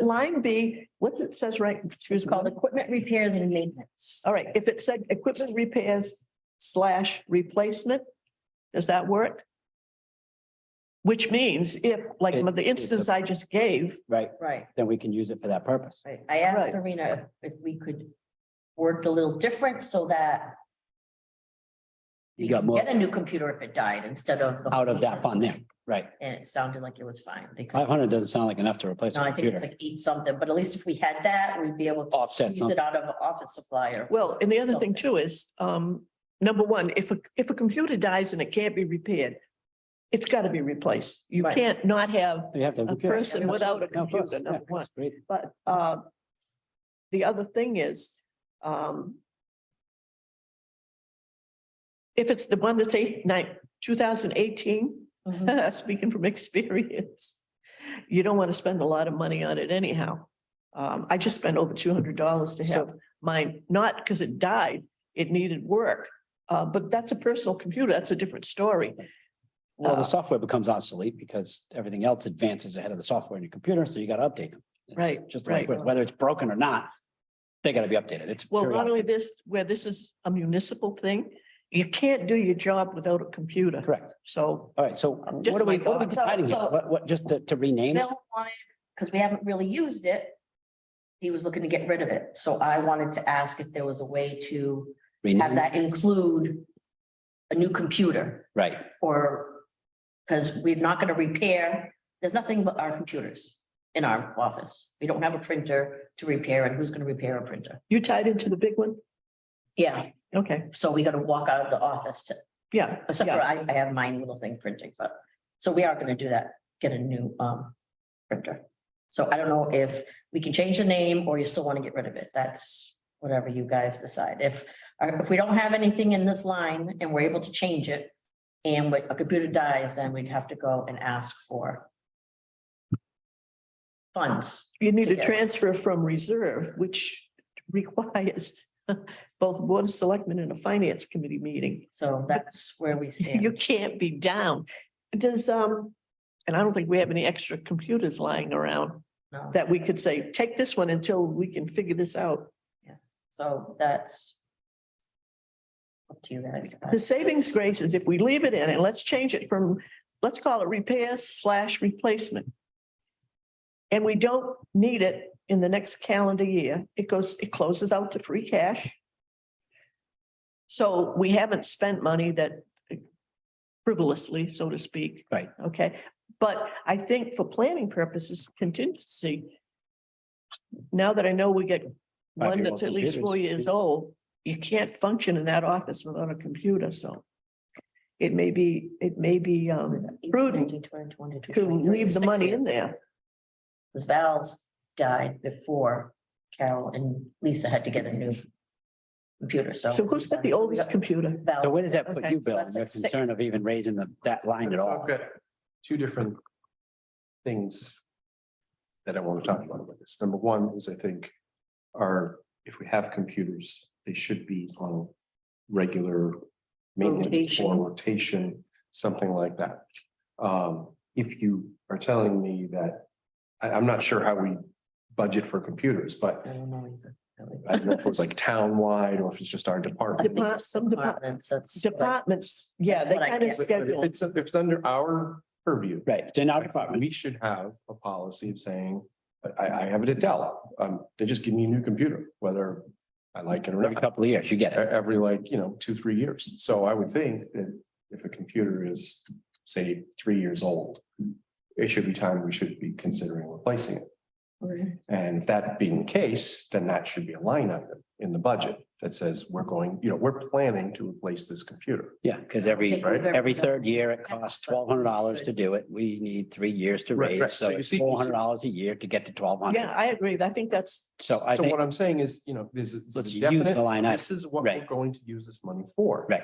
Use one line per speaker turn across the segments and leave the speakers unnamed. line B, what's it says right, excuse
It's
me.
called equipment repairs and maintenance.
All right, if it said equipment repairs slash replacement, does that work? Which means if, like
It-
the instance I just gave,
right?
Right,
Then we can use it for that purpose.
right. I
Right.
asked Serena if if we could work a little different so that we
You got
could
more
Get a new computer if it died instead of. the-
out of that fund there, right?
And it sounded like it was fine. They could-
Five hundred doesn't sound like enough to replace
No,
a
I think it's
computer.
like eight something, but at least if we had that, we'd be able to.
Offset
use
something.
It out of office supply or.
well, and the other thing too is, um, number one, if a, if a computer dies and it can't be repaired, it's got to be replaced. You
Right.
can't not have
You have to. have
a
computers.
person without a
No, of course,
computer,
yeah,
number one.
that's great.
But uh, the other thing is, um, if it's the one that's eight, nine, two thousand eighteen,
Mhm.
speaking from experience, you don't want to spend a lot of money on it anyhow. Um, I just spent over two hundred dollars to have mine, not because it died, it needed work. Uh, but that's a personal computer. That's a different story.
Well,
Uh,
the software becomes obsolete because everything else advances ahead of the software in your computer, so you gotta update them. It's
Right,
Just like,
right.
whether it's broken or not, they gotta be updated. It's.
Well, not
periodic.
only this, where this is a municipal thing, you can't do your job without a computer.
Correct.
So,
All right, so
uh, Just
what are we,
my
what are we
thoughts.
deciding here?
So-
What, what, just to, to rename? it?
Bill wanted, because we haven't really used it. He was looking to get rid of it, so I wanted to ask if there was a way to have
Rename, it?
that include a new computer
right?
or, because we're not gonna repair, there's nothing but our computers in our office. We don't have a printer to repair, and who's gonna repair a printer?
you tied into the big one?
Yeah,
Okay,
so we gotta walk out of the office to,
yeah.
except for
yeah.
I, I have my little thing printing, but, so we are gonna do that, get a new, um, printer. So I don't know if we can change the name or you still wanna get rid of it, that's whatever you guys decide. If, or if we don't have anything in this line and we're able to change it, and what- a computer dies, then we'd have to go and ask for funds,
You need to
Together.
transfer from reserve, which requires both board of selectmen and a finance committee meeting.
so that's where we
You
stand.
can't be down. Does, um, and I don't think we have any extra computers lying around
No.
that we could say, take this one until we can figure this out.
So that's up to you guys.
The savings grace is if we leave it in and let's change it from, let's call it repair slash replacement. And we don't need it in the next calendar year. It goes, it closes out to free cash. So we haven't spent money that frivolously, so to speak.
Right.
Okay, but I think for planning purposes, contingency. Now that I know we get
Five-year-old
one that's at least four
computers.
years old, you can't function in that office without a computer, so. It may be, it may be um prudent to leave the money in there.
Because Val's died before Carol and Lisa had to get a new computer, so.
So who's got the oldest computer?
Val-
So where does that put
Okay,
you,
so
Bill?
that's
Your
like six.
concern of even raising the, that line at
So
all?
I've got Two different things that I want to talk about with this. Number one is I think are, if we have computers, they should be on regular maintenance
Rotation.
or rotation, something like that. Um, if you are telling me that, I, I'm not sure how we budget for computers, but
I don't know either.
I don't know if it was like town-wide or if it's just our department.
Depart, some depart-
Departments, that's.
departments, yeah, they
That's what I
kind of
get.
But but if
schedule.
it's, if it's under our purview,
Right, it's in our
thought
department.
we should have a policy of saying, but I, I have it at Dell. Um, they just give me a new computer, whether I like it or
Every
not,
couple of years, you
e-
get it.
every like, you know, two, three years. So I would think that if a computer is, say, three years old, it should be time we should be considering replacing it. And if that being the case, then that should be a line item in the budget that says, we're going, you know, we're planning to replace this computer.
Yeah, because every,
right?
every third year, it costs twelve hundred dollars to do it. We need three years to
Right, right.
raise, so
So you
it's
see- you see-
four hundred dollars a year to get to twelve hundred.
Yeah, I agree. I think that's,
So I
So
think,
what I'm saying is, you know, there's a-
Let's
there's a
use the line
definite,
item.
this is what we're
Right.
going to use this money for.
right,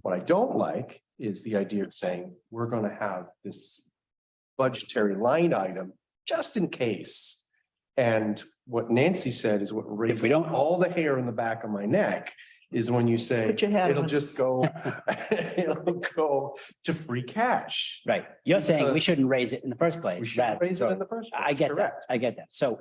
What I don't like is the idea of saying, we're gonna have this budgetary line item just in case. And what Nancy said is what raises
don't-
all the hair in the back of my neck is when you say,
put your hat
it'll
on.
just go, it'll go to free cash.
right. You're saying we
Because-
shouldn't raise it in the first
We
place.
should
rather-
raise it in the first.
I
place,
get that.
correct.
I get that. So